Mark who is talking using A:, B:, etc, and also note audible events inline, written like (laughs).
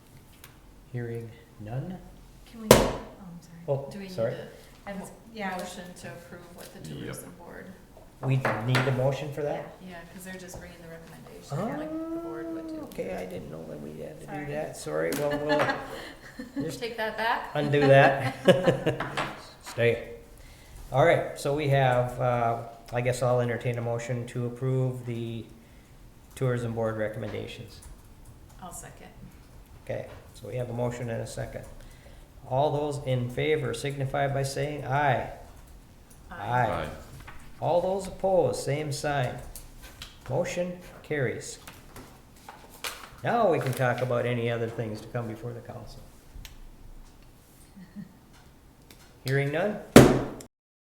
A: Hearing none?
B: Can we, oh, I'm sorry.
A: Oh,
C: Do we need
A: sorry.
C: a
B: I was-
C: a
B: Yeah, I was-
C: motion to approve with the
D: Yep.
C: tourism board?
A: We need a motion for that?
C: Yeah, because they're just bringing the recommendation, like the board would
A: Oh,
C: do.
A: Okay, I didn't know that we had to
B: Sorry.
A: do that. Sorry,
C: (laughs)
A: well, we'll Just-
C: Take that back?
A: undo
C: (laughs)
A: that. Stay. All right, so we have, uh, I guess I'll entertain a motion to approve the tourism board recommendations.
C: I'll second.
A: Okay, so we have a motion and a second. All those in favor signify by saying aye. Aye. All those opposed, same sign. Motion carries. Now we can talk about any other things to come before the council. Hearing none?